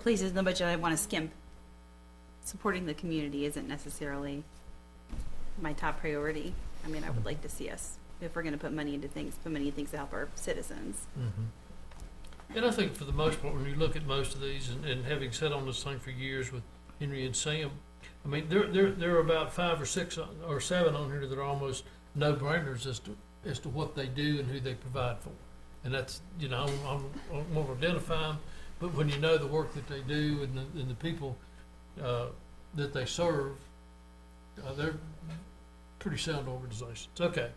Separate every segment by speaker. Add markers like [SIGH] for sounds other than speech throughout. Speaker 1: places in the budget I want to skimp. Supporting the community isn't necessarily my top priority. I mean, I would like to see us, if we're going to put money into things, put money into things to help our citizens.
Speaker 2: Mm-hmm. And I think for the most part, when you look at most of these, and, and having sat on this thing for years with Henry and Sam, I mean, there, there, there are about five or six on- or seven on here that are almost no-brainers as to, as to what they do and who they provide for. And that's, you know, I'm, I'm, I'm gonna identify them, but when you know the work that they do and the, and the people, uh, that they serve, uh, they're pretty sound organizations. Okay.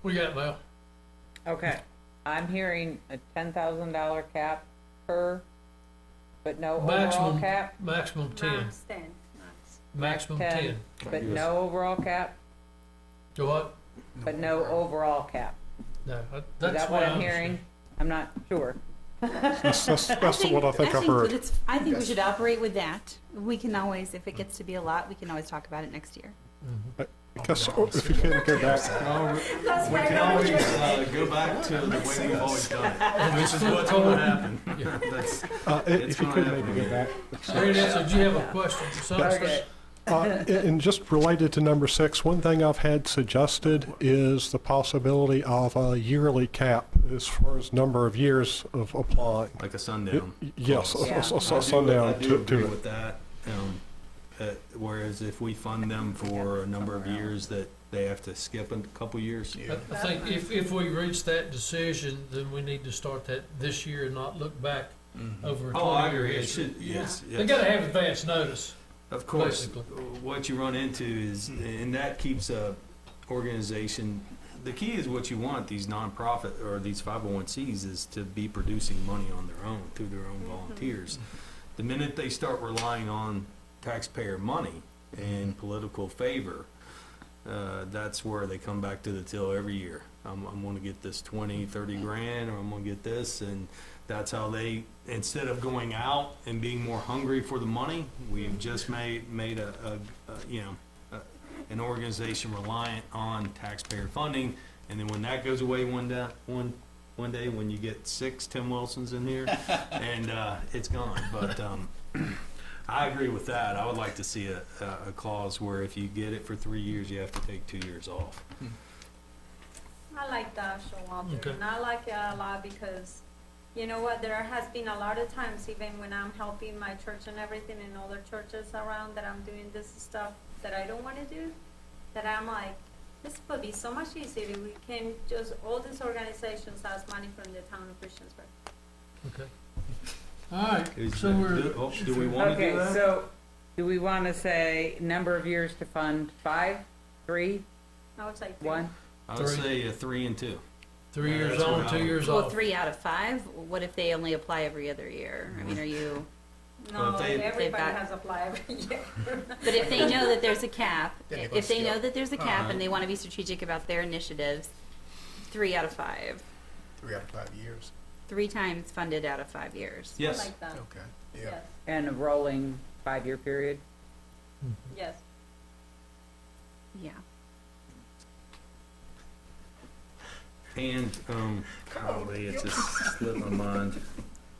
Speaker 2: What do you got, Val?
Speaker 3: Okay, I'm hearing a ten thousand dollar cap per, but no overall
Speaker 2: Maximum.
Speaker 3: cap,
Speaker 2: Maximum ten,
Speaker 4: Max ten, max.
Speaker 2: maximum
Speaker 3: Ten.
Speaker 2: ten.
Speaker 3: but no overall cap,
Speaker 2: Do what?
Speaker 3: but no overall cap.
Speaker 2: No, I-
Speaker 3: Is
Speaker 2: that's
Speaker 3: that what
Speaker 2: why
Speaker 3: I'm
Speaker 2: I'm
Speaker 3: hearing? I'm not sure.
Speaker 5: [LAUGHS] That's, that's, that's what I think I've
Speaker 1: that
Speaker 5: heard.
Speaker 1: it's- I think we should operate with that. We can always, if it gets to be a lot, we can always talk about it next year.
Speaker 5: Because if you can go back,
Speaker 6: Well, We can always uh, go back to the way we've always done [LAUGHS] it, which is what's going to happen.
Speaker 2: [LAUGHS]
Speaker 6: That's-
Speaker 5: uh,
Speaker 6: It's
Speaker 5: if you could
Speaker 6: gonna
Speaker 5: maybe go back.
Speaker 6: [LAUGHS]
Speaker 2: Mary Nancy, do you have a question? Something-
Speaker 3: Okay.
Speaker 5: Uh, and just related to number six, one thing I've had suggested is the possibility of a yearly cap as far as number of years of applying.
Speaker 6: Like a sundown.
Speaker 5: Yes, a-
Speaker 3: Yeah.
Speaker 5: a-
Speaker 6: I
Speaker 5: a-
Speaker 6: do-
Speaker 5: a sundown
Speaker 6: I do
Speaker 5: to,
Speaker 6: agree
Speaker 5: to it.
Speaker 6: with that. um, uh, Whereas if we fund them for a number of years, that they have to skip a couple years.
Speaker 2: I I think if, if we reach that decision, then we need to start that this year and not look back over a
Speaker 6: Oh, I
Speaker 2: twenty-year
Speaker 6: agree, it
Speaker 2: history.
Speaker 6: should, yes, yes.
Speaker 2: They gotta have advance notice.
Speaker 6: Of course,
Speaker 2: Basically.
Speaker 6: what you run into is, and that keeps a organization, the key is what you want these nonprofit or these 501Cs is to be producing money on their own through their own volunteers. The minute they start relying on taxpayer money and political favor, uh, that's where they come back to the till every year. I'm, I'm going to get this 20, 30 grand, or I'm going to get this, and that's how they, instead of going out and being more hungry for the money, we've just made, made a, a, a you know, a, an organization reliant on taxpayer funding, and then when that goes away one day, one, one day, when you get six Tim Wilsons in here, and, uh, it's gone, but, um, I agree with that. I would like to see a, a- a clause where if you get it for three years, you have to take two years off.
Speaker 4: I like that, Showalter,
Speaker 2: Okay.
Speaker 4: and I like it a lot because, you know what, there has been a lot of times, even when I'm helping my church and everything and other churches around, that I'm doing this stuff that I don't wanna do, that I'm like, this would be so much easier if we can just, all these organizations ask money from the town of Christiansburg.
Speaker 2: Okay. All right,
Speaker 6: Is
Speaker 2: so
Speaker 6: that-
Speaker 2: we're.
Speaker 6: do- do we want- Wanna do
Speaker 3: Okay,
Speaker 6: that?
Speaker 3: so do we want to say number of years to fund five, three,
Speaker 4: I was like,
Speaker 3: one?
Speaker 6: I would
Speaker 2: Three.
Speaker 6: say a three and two.
Speaker 2: Three years
Speaker 6: That's
Speaker 2: on,
Speaker 6: what
Speaker 2: two
Speaker 6: I-
Speaker 2: years
Speaker 1: Well,
Speaker 2: off.
Speaker 1: three out of five, what if they only apply every other year? I mean, are you,
Speaker 4: no,
Speaker 6: Well, they- They've
Speaker 4: everybody
Speaker 1: got-
Speaker 4: has applied every [LAUGHS] year.
Speaker 1: but if they know that there's a cap,
Speaker 7: Then they go
Speaker 1: if they know
Speaker 7: scale.
Speaker 1: that there's a cap
Speaker 6: Alright.
Speaker 1: and they want to be strategic about their initiatives, three out of five,
Speaker 7: Three out of five years.
Speaker 1: three times funded out of five years.
Speaker 4: I
Speaker 6: Yes,
Speaker 4: like that,
Speaker 7: Okay. Yeah.
Speaker 4: yes,
Speaker 3: And a rolling five-year period?
Speaker 4: yes.
Speaker 1: Yeah.
Speaker 6: and, um, golly, it just slipped my mind.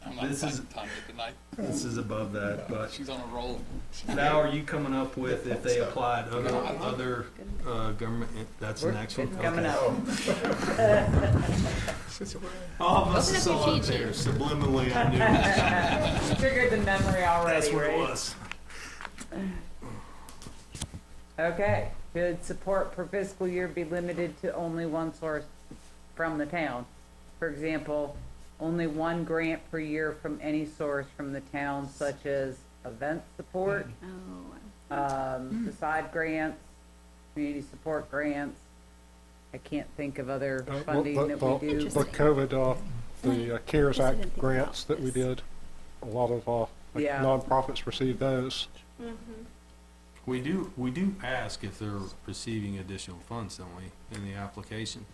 Speaker 8: I'm not
Speaker 6: This
Speaker 8: this
Speaker 6: is-
Speaker 8: is tonight.
Speaker 6: This is above that, but
Speaker 8: She's on a roll.
Speaker 6: now are you coming up with if they applied other, other, uh, government, that's the
Speaker 3: We're-
Speaker 6: next one?
Speaker 3: It's coming
Speaker 6: Okay.
Speaker 3: up.
Speaker 6: All
Speaker 1: Open
Speaker 6: of us
Speaker 1: up
Speaker 6: is
Speaker 1: your
Speaker 6: all up
Speaker 1: cheat sheet.
Speaker 6: there subliminally, I knew
Speaker 3: Triggered the memory
Speaker 6: that's
Speaker 3: already,
Speaker 6: where it
Speaker 3: right?
Speaker 6: was.
Speaker 3: Okay, should support per fiscal year be limited to only one source from the town? For example, only one grant per year from any source from the town, such as event support,
Speaker 1: Oh,
Speaker 3: um, facade grants, community support grants. I can't think of other
Speaker 5: Uh, well,
Speaker 3: funding
Speaker 5: the-
Speaker 3: that we
Speaker 5: the-
Speaker 3: do.
Speaker 5: The COVID, uh, the uh, CARES
Speaker 1: Yes, I didn't
Speaker 5: Act
Speaker 1: think
Speaker 5: grants
Speaker 1: about
Speaker 5: that we
Speaker 1: this.
Speaker 5: did, a lot of, uh, like
Speaker 3: Yeah.
Speaker 5: nonprofits received those.
Speaker 4: Mhm.
Speaker 6: We do, we do ask if they're receiving additional funds, don't we, in the application?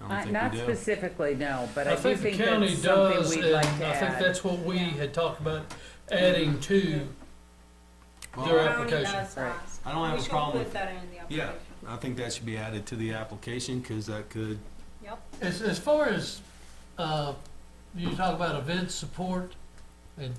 Speaker 4: Uh,
Speaker 3: Not-
Speaker 6: I don't think
Speaker 3: Not
Speaker 6: we do.
Speaker 3: specifically, no, but I
Speaker 2: I
Speaker 3: do
Speaker 2: think the
Speaker 3: think
Speaker 2: county
Speaker 3: that's something
Speaker 2: does,
Speaker 3: we'd
Speaker 2: and I
Speaker 3: like to
Speaker 2: think
Speaker 3: add.
Speaker 2: that's what we had talked about, adding to their
Speaker 6: Well,
Speaker 4: County
Speaker 2: application.
Speaker 4: does
Speaker 3: Right.
Speaker 4: ask.
Speaker 6: I don't have
Speaker 4: We
Speaker 6: a
Speaker 4: should
Speaker 6: problem with
Speaker 4: Put that in the
Speaker 6: Yeah,
Speaker 4: application.
Speaker 6: I think that should be added to the application, because that could,
Speaker 4: Yep.
Speaker 2: As, as far as, uh, you talk about event support, and